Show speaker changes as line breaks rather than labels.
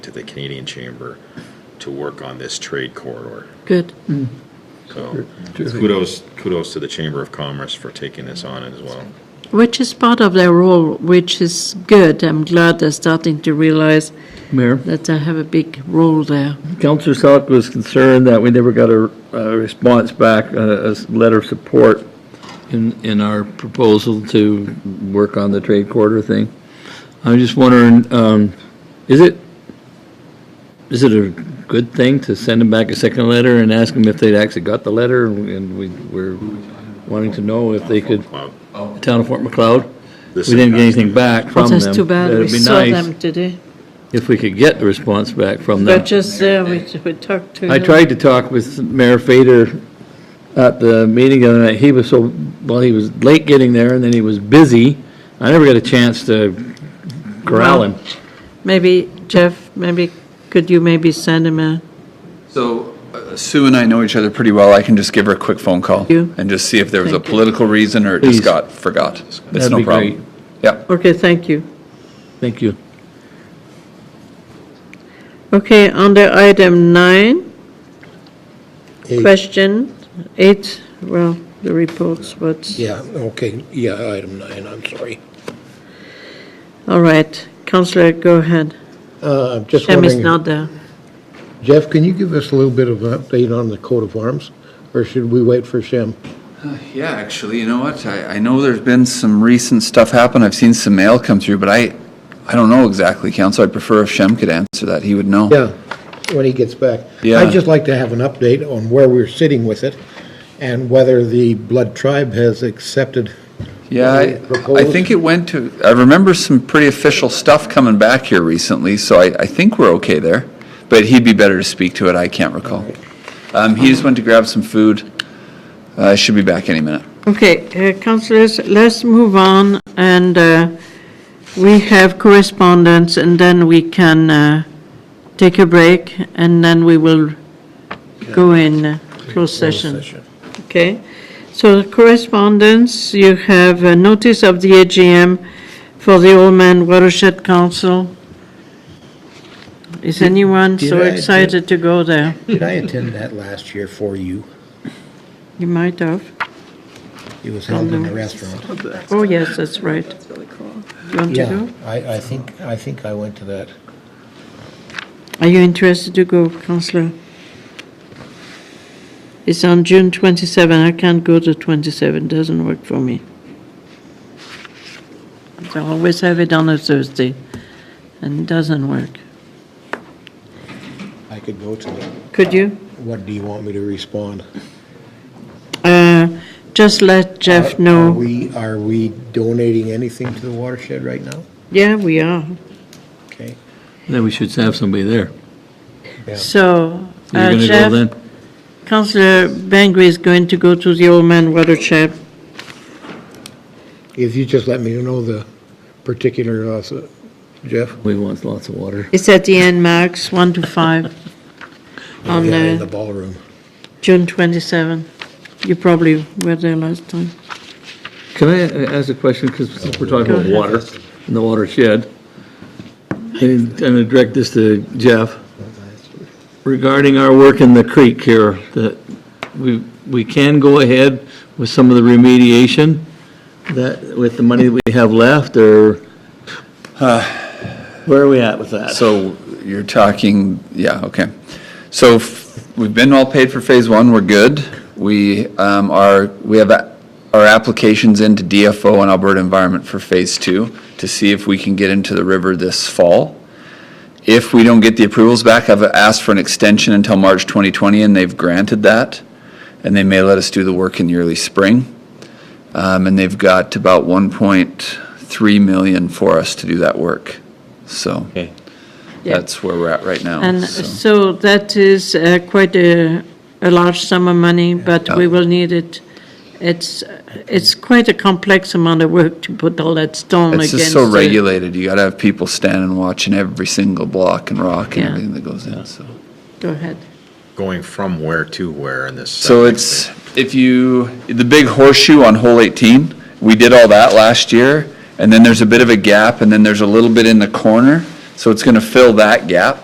to the Canadian Chamber to work on this trade corridor.
Good.
So kudos, kudos to the Chamber of Commerce for taking this on as well.
Which is part of their role, which is good. I'm glad they're starting to realize
Mayor,
that they have a big role there.
Councillor Salk was concerned that we never got a uh, response back, uh, a a s- letter of support in, in our proposal to work on the trade quarter thing. I'm just wondering, um, is it, is it a good thing to send them back a second letter and ask them if they'd actually got the letter? And we were wanting to know if they could,
Wow.
town of Fort McLeod? We
This is-
didn't get anything back
Well,
from them.
that's too bad. We
It'd be
saw
nice
them today.
if we could get a response back from them.
They're just there. We, we talked to
I
them.
tried to talk with Mayor Fader at the meeting the other night. He was so, well, he was late getting there, and then he was busy. I never got a chance to corral him.
Maybe, Jeff, maybe, could you maybe send him a,
So uh, Sue and I know each other pretty well. I can just give her a quick phone call
you.
and just see if there was a
Thank you.
political reason or it
Please.
just got forgot. It's
That'd
no
be great.
problem. Yeah.
okay, thank you.
Thank you.
Okay, under item nine,
Eight.
question eight, well, the reports, what's,
Yeah, okay, yeah, item nine, I'm sorry.
all right. Counselor, go ahead.
Uh, I'm just
Tim is
wondering,
not there.
Jeff, can you give us a little bit of an update on the coat of arms? Or should we wait for Shem?
Yeah, actually, you know what? I, I know there's been some recent stuff happen. I've seen some mail come through, but I, I don't know exactly, Council. I'd prefer if Shem could answer that. He would know.
Yeah, when he gets back.
Yeah.
I'd just like to have an update on where we're sitting with it and whether the Blood Tribe has accepted.
Yeah,
Any
I, I
proposed-
think it went to, I remember some pretty official stuff coming back here recently, so I, I think we're okay there. But he'd be better to speak to it, I can't recall. Um, he just went to grab some food. Uh, should be back any minute.
Okay, uh, councillors, let's move on, and uh, we have correspondence, and then we can uh, take a break, and then we will go in uh, closed session. Okay? So correspondence, you have a notice of the AGM for the Oldman Watershed Council. Is anyone
did
so
I-
excited to go there?
Did I attend that last year for you?
You might have.
It was held in a restaurant.
Oh, yes, that's right.
That's really cool.
You want to
Yeah,
go?
I, I think, I think I went to that.
Are you interested to go, councillor? It's on June 27, I can't go to 27, doesn't work for me. I always have it on a Thursday, and it doesn't work.
I could go to it.
Could you?
What do you want me to respond?
Uh, Just let Jeff
Are- Uh, Are
know.
we, are we donating anything to the watershed right now?
Yeah, we are.
Okay.
Then we should have somebody there.
So,
You're
uh,
going to go
Jeff,
then?
councillor Bangry is going to go to the Old Man Watershed.
If you just let me know the particular, uh, so- Jeff?
We want lots of water.
It's at the end marks, 1 to 5, on
Yeah, In
uh,
the ballroom.
June 27. You probably were there last time.
Can I a- ask a question, because since we're talking about
ahead.
water and the watershed, and I'm going to direct this to Jeff, regarding our work in the creek here, that we, we can go ahead with some of the remediation that, with the money that we have left, or where are we at with that?
So you're talking, yeah, okay. So f- we've been all paid for phase one, we're good. We um, are, we have a- our applications into DFO and Alberta Environment for phase two to see if we can get into the river this fall. If we don't get the approvals back, I've asked for an extension until March 2020, and they've granted that. And they may let us do the work in the early spring. Um, And they've got about 1.3 million for us to do that work, so.
Yeah.
That's where we're at right now.
And
so.
so that is uh, quite a, a large sum of money, but we will need it. It's, it's quite a complex amount of work to put all that stone
It's
against.
just so
the-
regulated. You gotta have people standing watching every single block and rock and
Yeah.
everything that goes in, so.
Go ahead.
Going from where to where in this.
So
septic
it's, if you, the big horseshoe on hole 18, we did all that last year, and then there's a bit of a gap, and then there's a little bit in the corner, so it's gonna fill that gap.